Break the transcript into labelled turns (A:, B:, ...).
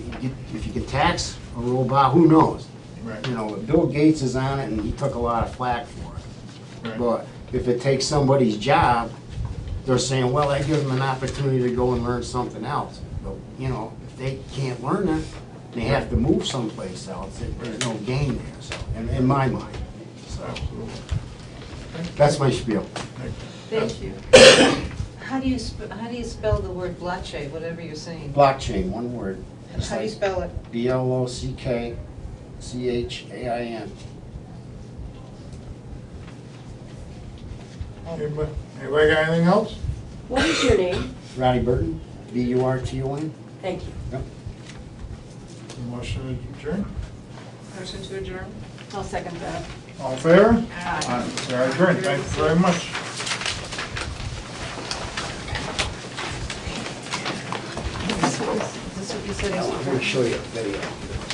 A: you- if you can tax a robot, who knows?
B: Right.
A: You know, Bill Gates is on it and he took a lot of flack for it.
B: Right.
A: But if it takes somebody's job, they're saying, well, that gives them an opportunity to go and learn something else. But, you know, if they can't learn it, they have to move someplace else. There- There's no gain there, so, in, in my mind, so. That's my spiel.
C: Thank you. How do you, sp- how do you spell the word blockchain, whatever you're saying?
A: Blockchain, one word.
C: How do you spell it?
A: B L O C K C H A I N.
B: Anybody anybody got anything else?
D: What is your name?
A: Roddy Burton, B U R T O N.
D: Thank you.
B: Motion adjourned.
C: Person to adjourn?
D: I'll second that.
B: All in favor?
C: Aye.
B: We are adjourned. Thank you very much.
C: This is this what you said?
A: I'm gonna show you a video.